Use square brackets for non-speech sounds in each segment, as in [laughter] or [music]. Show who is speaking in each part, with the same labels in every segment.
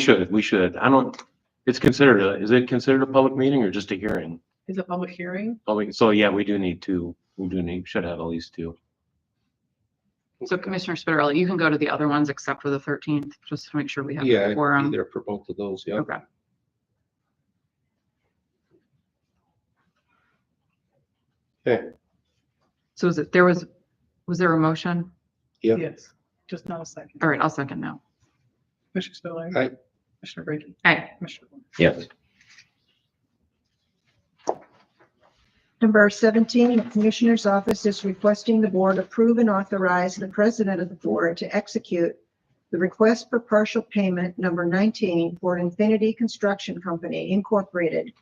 Speaker 1: Should, we should. I don't, it's considered, a is it considered a public meeting or just a hearing?
Speaker 2: Is it public hearing?
Speaker 1: Public, so yeah, we do need two. We do need, should have at least two.
Speaker 2: So Commissioner Spitarella, you can go to the other ones except for the thirteenth, just to make sure we have
Speaker 3: Yeah,
Speaker 2: a
Speaker 3: I'd be
Speaker 2: quorum.
Speaker 3: there for both of those, yeah.
Speaker 2: um, Okay.
Speaker 3: Okay.
Speaker 2: So is it, there was, was there a motion?
Speaker 3: Yeah.
Speaker 4: Yes, just not a second.
Speaker 2: All right, I'll second now.
Speaker 4: Commissioner Spiller.
Speaker 3: Aye.
Speaker 4: Commissioner Brady.
Speaker 2: Aye.
Speaker 4: Commissioner Warren.
Speaker 1: Yes.
Speaker 5: Number seventeen, the Commissioner's Office is requesting the board approve and authorize the president of the board to execute the request for partial payment number nineteen for Infinity Construction Company Incorporated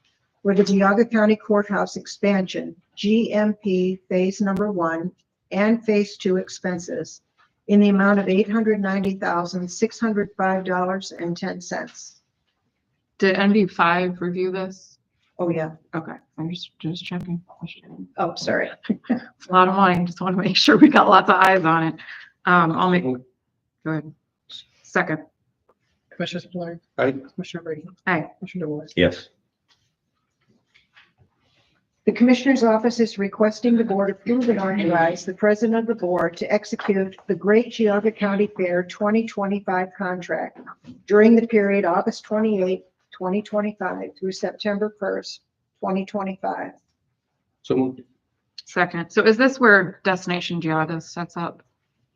Speaker 5: for the Geauga County Courthouse expansion, GMP Phase Number One and Phase Two expenses in the amount of eight hundred ninety thousand, six hundred five dollars and ten cents.
Speaker 2: Did NV five review this?
Speaker 5: Oh, yeah.
Speaker 2: Okay, I'm just, just checking. A
Speaker 5: Oh, sorry.
Speaker 2: lot of money, just want to make sure we got lots of eyes on it. Um, I'll make, go ahead. Second,
Speaker 4: Commissioner Spiller.
Speaker 3: Aye.
Speaker 4: Commissioner Brady.
Speaker 2: Aye.
Speaker 4: Commissioner DeWort.
Speaker 1: Yes.
Speaker 5: The Commissioner's Office is requesting the Board approve and authorize the President of the Board to execute the Great Geogga County Fair 2025 contract during the period August 28, 2025 through September 1st, 2025.
Speaker 3: So moved.
Speaker 2: second. So is this where Destination Geogga sets up?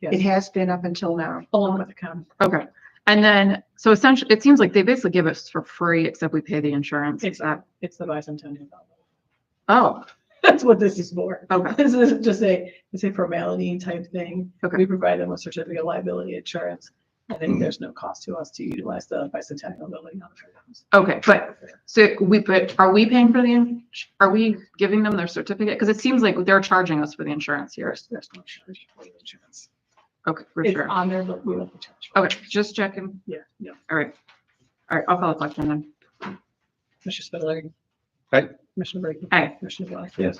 Speaker 5: It
Speaker 4: Yes,
Speaker 5: has been up until now.
Speaker 4: along with the county.
Speaker 2: Okay, and then, so essentially, it seems like they basically give us for free, except we pay the insurance. Is
Speaker 4: It's,
Speaker 2: that,
Speaker 4: it's the bicentennial. ballot. [laughs]
Speaker 2: oh,
Speaker 4: That's what this is for.
Speaker 2: Okay.
Speaker 4: This is just a, it's a formality type thing.
Speaker 2: Okay.
Speaker 4: We provide them with certificate of liability insurance. I think there's no cost to us to utilize the bicentennial building. on the fairgrounds.
Speaker 2: okay, but, so we, but are we paying for the, ins- are we giving them their certificate? Because it seems like they're charging us for the insurance here.
Speaker 4: There's, there's no charge for the insurance.
Speaker 2: Okay, for
Speaker 4: It's
Speaker 2: sure.
Speaker 4: on there, but we don't have to charge. for it.
Speaker 2: Okay, just checking.
Speaker 4: Yeah, yeah.
Speaker 2: All right. All right, I'll call the question then.
Speaker 4: Commissioner Spiller.
Speaker 3: Aye.
Speaker 4: Commissioner Brady.
Speaker 2: Aye.
Speaker 4: Commissioner DeWort.
Speaker 1: Yes.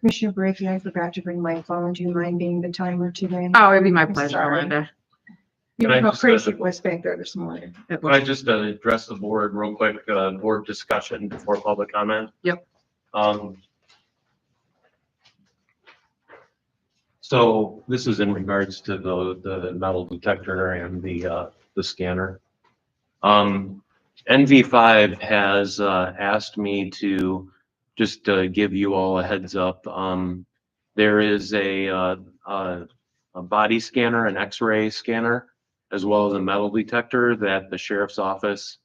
Speaker 5: Commissioner Brady, I forgot to bring my phone. Do you mind being the timer today?
Speaker 2: Oh, it'd be my
Speaker 5: I'm
Speaker 2: pleasure,
Speaker 5: sorry.
Speaker 2: Rhonda.
Speaker 5: You
Speaker 1: Can I
Speaker 5: know how
Speaker 1: just,
Speaker 5: crazy
Speaker 1: uh,
Speaker 5: it was back there this morning.
Speaker 2: It
Speaker 1: Can I
Speaker 2: was-
Speaker 1: just uh, address the board real quick, uh, board discussion before public comment?
Speaker 2: Yep.
Speaker 1: Um. So this is in regards to the, the metal detector and the, uh, the scanner. Um, NV five has, uh, asked me to just, uh, give you all a heads up. Um, there is a, uh, uh, a body scanner, an x-ray scanner as well as a metal detector that the sheriff's office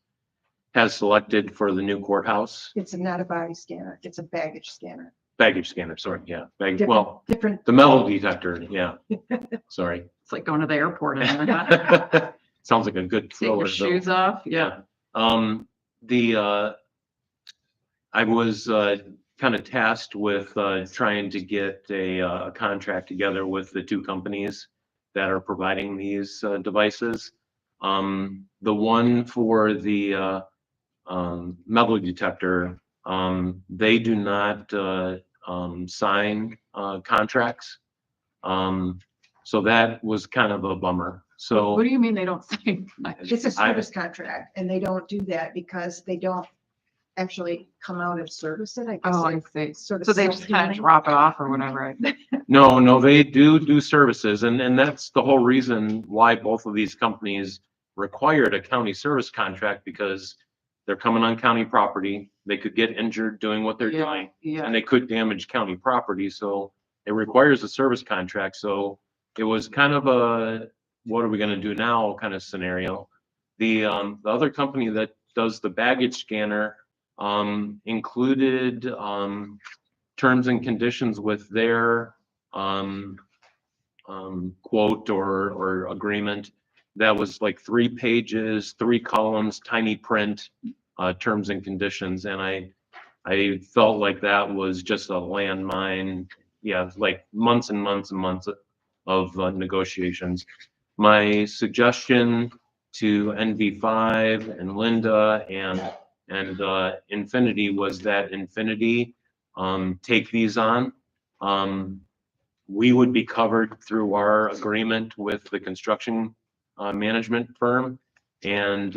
Speaker 1: has selected for the new courthouse,
Speaker 5: It's not a body scanner. It's a baggage scanner.
Speaker 1: baggage scanner, sorry, yeah, baggage, well,
Speaker 5: Different,
Speaker 1: the metal detector,
Speaker 5: [laughs]
Speaker 1: yeah, sorry. [laughs]
Speaker 2: It's like going to the airport and
Speaker 1: Sounds like a good
Speaker 2: taking your
Speaker 1: thriller. though.
Speaker 2: shoes off. Yeah.
Speaker 1: Yeah, um, the, uh, I was, uh, kind of tasked with, uh, trying to get a, uh, a contract together with the two companies that are providing these, uh, devices. Um, the one for the, uh, um, metal detector, um, they do not, uh, um, sign, uh, contracts. Um, so that was kind of a bummer.
Speaker 2: What
Speaker 1: So
Speaker 2: do you mean they don't say? [laughs] much?
Speaker 5: It's a
Speaker 1: I-
Speaker 5: service contract and they don't do that because they don't actually come out and service it, I
Speaker 2: Oh,
Speaker 5: guess.
Speaker 2: I see.
Speaker 5: it's sort of
Speaker 2: So they just kind of
Speaker 5: self-healing.
Speaker 2: drop it off or whatever. I-
Speaker 1: No, no, they do do services and, and that's the whole reason why both of these companies required a county service contract because they're coming on county property. They could get injured doing what they're
Speaker 2: Yeah,
Speaker 1: doing
Speaker 2: Yeah.
Speaker 1: and they could damage county property. So it requires a service contract. So it was kind of a, what are we gonna do now kind of scenario. The, um, the other company that does the baggage scanner, um, included, um, terms and conditions with their, um, um, quote or, or agreement that was like three pages, three columns, tiny print, uh, terms and conditions. And I, I felt like that was just a landmine. Yeah, like months and months and months of uh, negotiations. My suggestion to NV5 and Linda and, and uh, Infinity was that Infinity um, take these on. Um, We would be covered through our agreement with the construction uh, management firm. And